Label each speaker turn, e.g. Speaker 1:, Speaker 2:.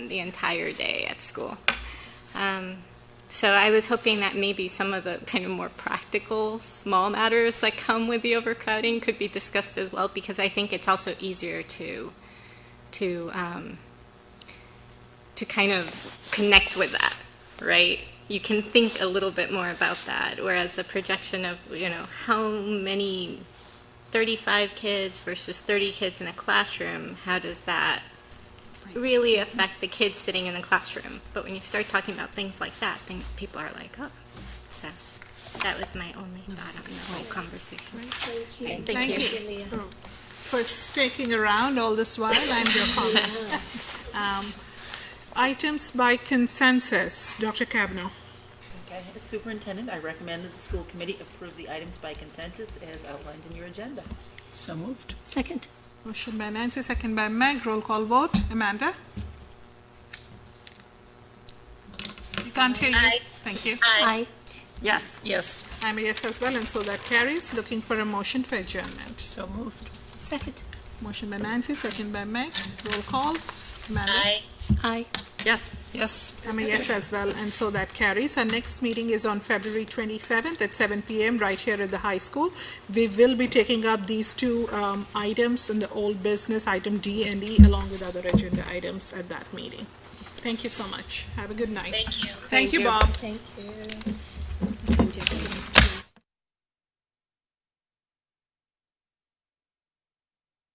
Speaker 1: the entire day at school. Um, so I was hoping that maybe some of the kind of more practical, small matters that come with the overcrowding could be discussed as well, because I think it's also easier to to um, to kind of connect with that, right? You can think a little bit more about that, whereas the projection of you know how many 35 kids versus 30 kids in a classroom, how does that really affect the kids sitting in the classroom? But when you start talking about things like that, then people are like, oh, so that was my only thought on the whole conversation.
Speaker 2: Thank
Speaker 1: you. Thank you.
Speaker 2: For sticking around all this while and your comment. Um, Items by consensus, Dr. Kavanaugh.
Speaker 3: Okay, as superintendent, I recommend that the school committee approve the items by consensus as outlined in your agenda.
Speaker 4: So moved.
Speaker 5: Second.
Speaker 2: Motion by Nancy, second by Meg, roll call vote, Amanda? We can't hear you. Thank you.
Speaker 5: Aye.
Speaker 4: Yes. Yes.
Speaker 2: I'm a yes as well, and so that carries. Looking for a motion for adjournment.
Speaker 4: So moved.
Speaker 5: Second.
Speaker 2: Motion by Nancy, second by Meg, roll call, Amanda?
Speaker 5: Aye. Yes.
Speaker 4: Yes.
Speaker 2: I'm a yes as well, and so that carries. Our next meeting is on February 27th at 7 PM, right here at the high school. We will be taking up these two um, items in the old business, item D and E, along with other agenda items at that meeting. Thank you so much. Have a good night. Thank you. Thank you, Bob.
Speaker 5: Thank you.